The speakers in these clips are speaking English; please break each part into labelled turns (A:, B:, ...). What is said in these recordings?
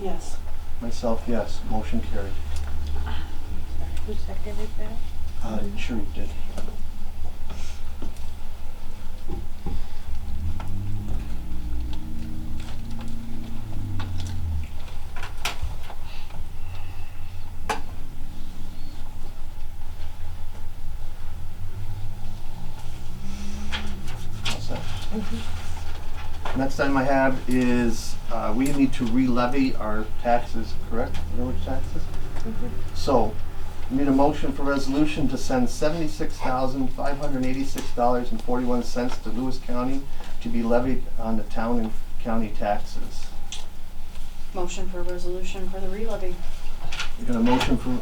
A: Yes.
B: Myself, yes. Motion carried.
A: Who seconded that?
B: Uh, Sharif did. All set. Next item I have is, uh, we need to re-levy our taxes, correct? Village taxes? So, we Need a motion for resolution to send seventy-six thousand, five hundred and eighty-six dollars and forty-one cents to Lewis County to be levied on the town and county taxes.
C: Motion for resolution for the relevy.
B: We got a motion for,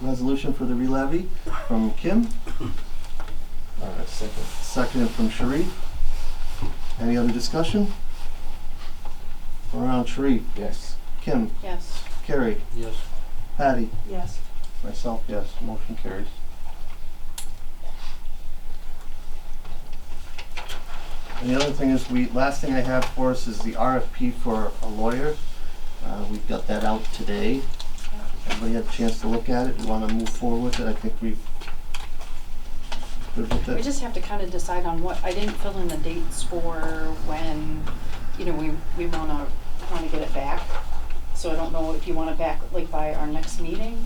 B: resolution for the re-levy from Kim,
D: Uh, second.
B: seconded from Sharif. Any other discussion? Around Sharif,
D: Yes.
B: Kim,
C: Yes.
B: Carrie,
E: Yes.
B: Patty,
A: Yes.
B: myself, yes, motion carries. And the other thing is, we, last thing I have for us is the RFP for a lawyer. Uh, we've got that out today. Everybody had a chance to look at it, we wanna move forward with it, I think we've. Good with
C: We
B: it?
C: just have to kind of decide on what, I didn't fill in the dates for when, you know, we, we wanna, wanna get it back. So I don't know if you want it back, like, by our next meeting.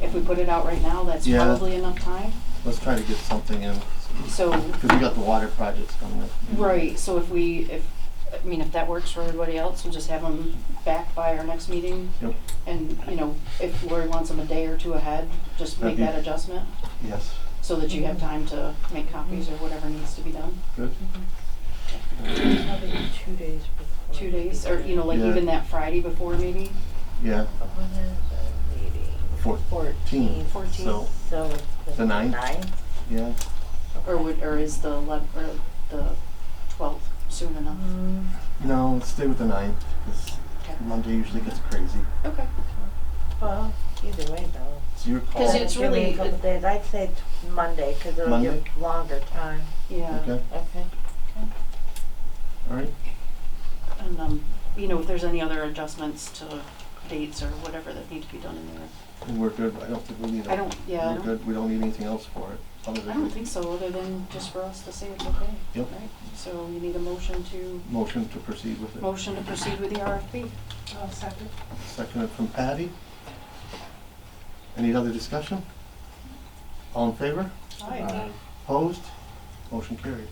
C: If we put it out right now, that's
B: Yeah.
C: probably enough time.
B: Let's try to get something in,
C: So,
B: cause we got the water projects coming up.
C: right, so if we, if, I mean, if that works for everybody else, we'll just have them back by our next meeting.
B: Yep,
C: And, you know, if Lori wants them a day or two ahead, just make
B: That'd be-
C: that adjustment.
B: yes,
C: so that you have time to make copies or whatever needs to be done.
B: good.
A: Probably two days before.
C: Two days, or, you know, like
B: Yeah.
C: even that Friday before maybe.
B: Yeah,
A: When is the meeting?
B: Four-
A: Fourteenth.
C: Fourteenth.
B: so,
A: So.
B: The ninth?
A: Ninth?
B: yeah,
C: Or would, or is the elev- or the twelfth soon enough?
A: Mm,
B: no, let's stay with the ninth, 'cause
C: Okay.
B: Monday usually gets crazy.
C: Okay.
A: Well, either way though.
B: It's your call.
C: Because
A: Give
C: it's
A: me
C: really-
A: a couple days, I'd say t- Monday, cause it'll
B: Monday?
A: give longer time.
C: Yeah,
B: Okay,
A: Okay.
B: all right.
C: and, um, you know, if there's any other adjustments to dates or whatever that need to be done in there.
B: And we're good. I don't think we need. a-
C: I don't- yeah, I
B: We're
C: don't-
B: good. We don't need anything else for it. Other
C: I don't
B: than
C: think so, other than just for us to say it's okay.
B: Yep.
C: Right, so you need a motion to,
B: motion to proceed with it.
C: motion to proceed with the RFP.
A: Oh, second.
B: Seconded from Patty. Any other discussion? All in favor?
D: Uh,
B: Opposed? Motion carried.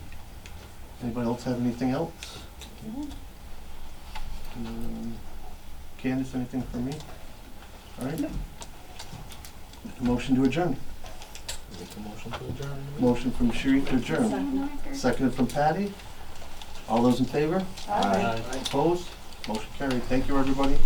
B: Anybody else have anything else?
C: No.
B: Um, Candace, anything for me? All right. Motion to adjourn.
D: Make a motion to adjourn.
B: Motion from Sharif to adjourn. Seconded from Patty. All those in favor?
D: Aye.
B: Opposed? Motion carried. Thank you, everybody.